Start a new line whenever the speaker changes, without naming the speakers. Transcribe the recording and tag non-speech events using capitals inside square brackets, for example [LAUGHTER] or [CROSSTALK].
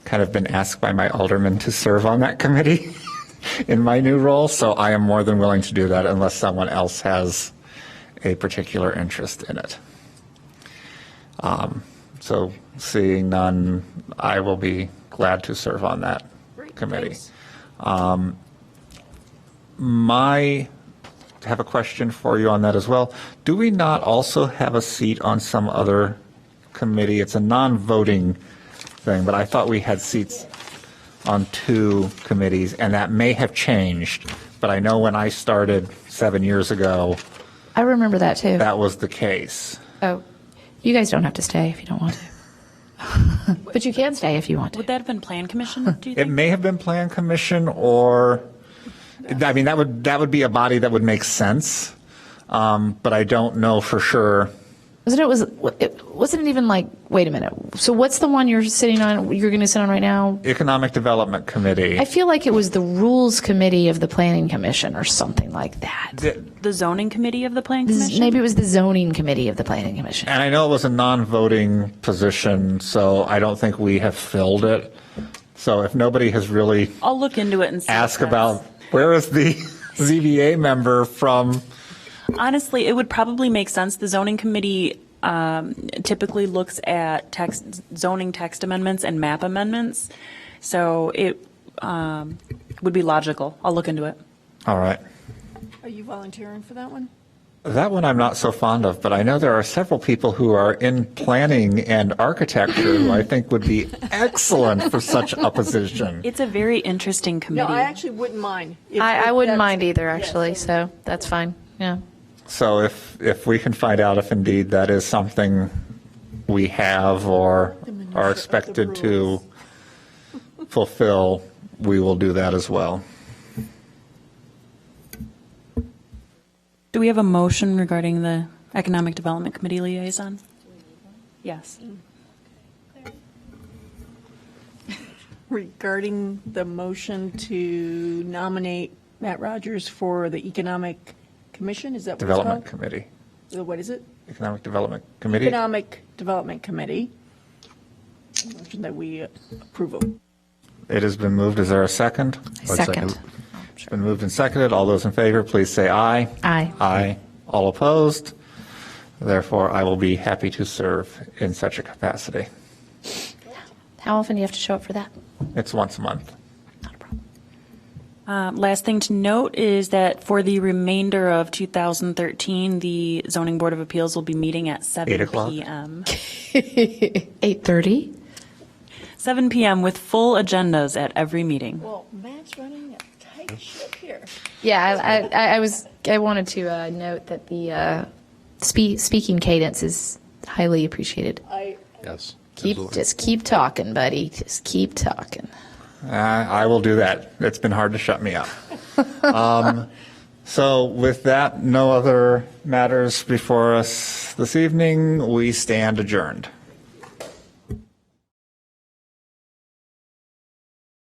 kind of been asked by my alderman to serve on that committee [LAUGHS] in my new role, so I am more than willing to do that unless someone else has a particular interest in it. Um, So seeing none, I will be glad to serve on that
Great,
committee.
thanks.
My, have a question for you on that as well. Do we not also have a seat on some other committee? It's a non-voting thing, but I thought we had seats on two committees, and that may have changed. But I know when I started seven years ago,
I remember that too.
that was the case.
oh, you guys don't have to stay if you don't want to. but you can stay if you want to.
Would that have been Plan Commission, do you
It
think?
may have been Plan Commission or, I mean, that would, that would be a body that would make sense, um, but I don't know for sure.
Wasn't it was it wasn't it even like wait a minute. So what's the one you're sitting on you're going to sit on right now?
Economic Development Committee.
I feel like it was the rules committee of the planning commission or something like that.
The zoning committee of the Plan
Z-
Commission?
Maybe it was the zoning committee of the planning commission.
And I know it was a non-voting position, so I don't think we have filled it. So if nobody has really
I'll look into it and see. if
asked
that's-
about, where is the [LAUGHS] ZBA member from?
Honestly, it would probably make sense. The zoning committee um, typically looks at text, zoning text amendments and map amendments. So it um, would be logical. I'll look into it.
All right.
Are you volunteering for that one?
That one I'm not so fond of, but I know there are several people who are in planning and architecture who I think would be excellent for such a position.
It's a very interesting committee.
No, I actually wouldn't mind. if-
I, I
if
wouldn't
that's-
mind e- either
yes,
actually. So that's fine. Yeah.
So if, if we can find out if indeed that is something we have or are expected to fulfill, we will do that as well.
Do we have a motion regarding the Economic Development Committee liaison? Yes.
Regarding the motion to nominate Matt Rogers for the Economic Commission, is that what it's called?
Development Committee,
Uh, What is it?
Economic Development Committee.
Economic Development Committee. Motion that we approve of.
It has been moved. Is there a second?
Second.
It's been moved and seconded. All those in favor, please say aye.
Aye.
Aye. All opposed? Therefore, I will be happy to serve in such a capacity.
How often do you have to show up for that?
It's once a month.
Not a problem.
Uh, Last thing to note is that for the remainder of 2013, the Zoning Board of Appeals will be meeting at 7
Eight o'clock.
PM.
8:30?
7 PM with full agendas at every meeting.
Well, Matt's running a tight ship here.
Yeah, I- I, I, I was, I wanted to uh, note that the uh, spe- speaking cadence is highly appreciated.
I,
Yes.
Keep, just keep talking, buddy. Just keep talking.
Uh, I will do that. It's been hard to shut me up. Um, So with that, no other matters before us this evening. We stand adjourned.